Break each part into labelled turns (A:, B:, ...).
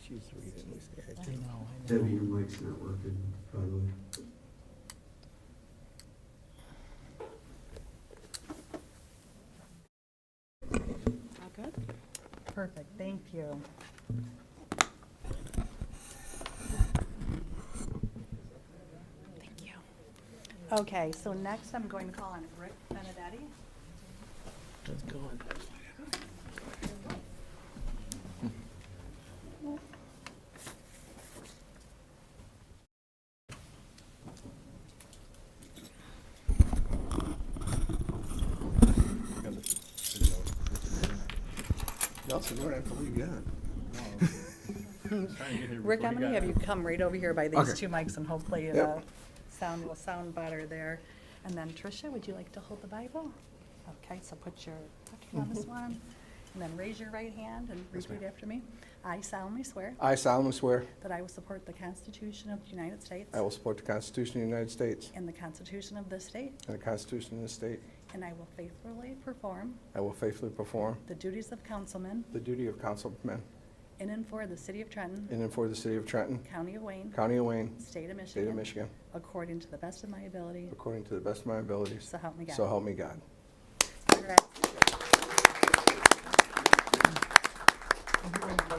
A: She's reading this.
B: I know, I
C: Debbie,
B: know.
C: your mic's not working, by the way.
D: All good?
B: Perfect, thank you.
D: Thank you.
B: Okay, so next I'm going to call on Rick Benedetti.
A: That's gone. Nelson, you don't have to leave yet.
B: Rick, I'm gonna have you come right over here by these
C: Okay.
B: two mics and hopefully the
A: Yep.
B: sound will sound better there. And then Tricia, would you like to hold the Bible? Okay, so put your left hand on this one, and then raise your right hand and repeat after me. I solemnly swear
E: I solemnly swear
B: that I will support the Constitution of the United States
E: I will support the Constitution of the United States
B: and the Constitution of this state,
E: and the Constitution of the state.
B: and I will faithfully perform
E: I will faithfully perform
B: the duties of councilman
E: the duty of councilman
B: in and for the city of Trenton,
E: in and for the city of Trenton,
B: county of Wayne,
E: county of Wayne,
B: state of
E: state of
B: Michigan,
E: Michigan,
B: according to the best of my ability,
E: according to the best of my abilities.
B: so help me God.
E: So help me God.
B: Congrats.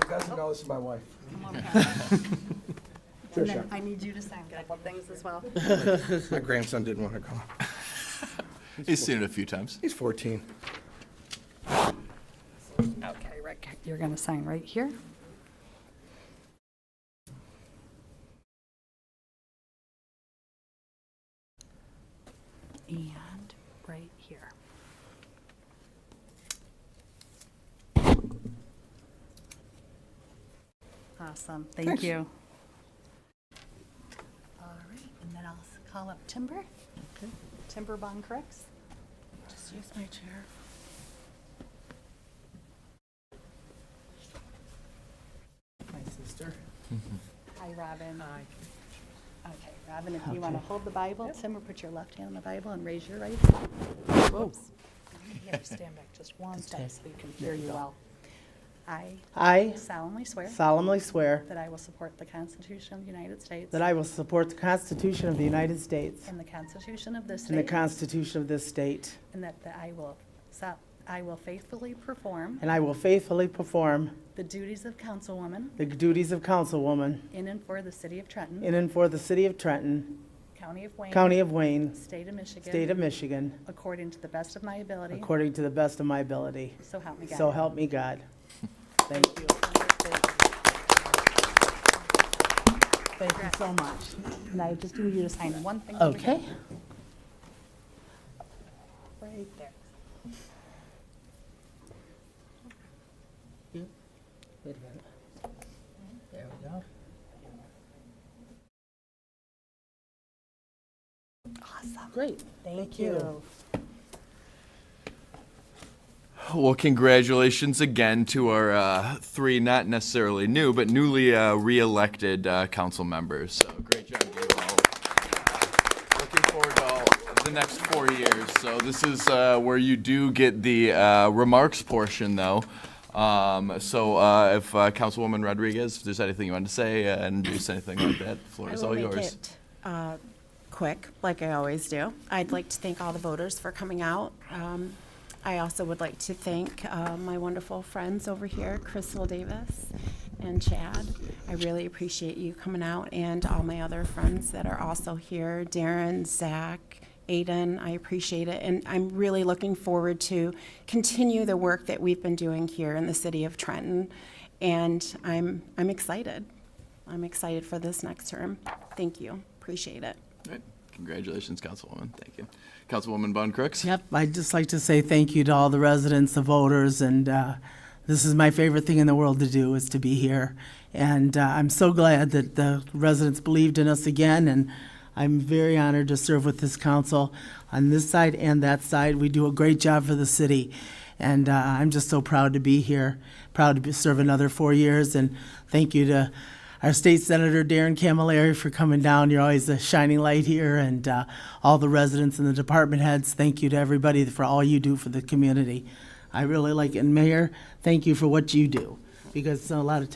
E: doesn't know, this is my wife.
B: And then I need you to sign a couple things as well.
E: My grandson didn't want to come.
F: He's seen it a few times.
E: He's 14.
B: Okay, Rick, you're going to sign right here. And right here. Awesome, thank
E: Thanks.
B: you. All right, and then I'll s- call up Timber. Timber Bond Crooks.
D: Just use my chair.
B: My sister. Hi, Robin. Hi. Okay, Robin, if you want to hold the Bible, Tim will put your left hand on the Bible and raise your right. hand. Whoops. You have to stand back just one step so we can hear you well. I
A: I
B: solemnly swear
A: solemnly swear
B: that I will support the Constitution of the United States
A: that I will support the Constitution of the United States
B: and the Constitution of this
A: and the
B: state,
A: Constitution of this state,
B: and that that I will, so- I will faithfully perform
A: and I will faithfully perform
B: the duties of councilwoman
A: the duties of councilwoman
B: in and for the city of Trenton,
A: in and for the city of Trenton,
B: county of Wayne,
A: county of Wayne,
B: state of Michigan,
A: state of Michigan,
B: according to the best of my ability,
A: according to the best of my ability.
B: so help me God.
A: So help me God. Thank you. Thank you so much.
B: And I just need you to sign one thing. over here.
A: Okay.
B: Right there.
A: Wait a minute. There we go.
B: Awesome.
A: Great.
B: Thank
A: you.
B: you.
F: Well, congratulations again to our uh, three not necessarily new, but newly uh, re-elected uh, council members. So great job, you all. Looking forward to all the next four years. So this is uh, where you do get the uh, remarks portion, though. Um, So uh, if uh, Councilwoman Rodriguez, if there's anything you wanted to say uh, and introduce anything like that, the floor
D: I
F: is
D: will
F: all
D: make
F: yours.
D: it, uh, Quick, like I always do. I'd like to thank all the voters for coming out. Um, I also would like to thank uh, my wonderful friends over here, Crystal Davis and Chad. I really appreciate you coming out and all my other friends that are also here, Darren, Zach, Aiden, I appreciate it. And I'm really looking forward to continue the work that we've been doing here in the city of Trenton. And I'm, I'm excited. I'm excited for this next term. Thank you. Appreciate it.
F: All right. Congratulations, Councilwoman. Thank you. Councilwoman Von Crooks?
A: Yep, I'd just like to say thank you to all the residents, the voters, and uh, this is my favorite thing in the world to do, is to be here. And uh, I'm so glad that the residents believed in us again, and I'm very honored to serve with this council on this side and that side. We do a great job for the city, and uh, I'm just so proud to be here, proud to be- serve another four years, and thank you to our state senator Darren Camilleri for coming down. You're always a shining light here, and uh, all the residents and the department heads. Thank you to everybody for all you do for the community. I really like it, and Mayor. Thank you for what you do, because a lot of times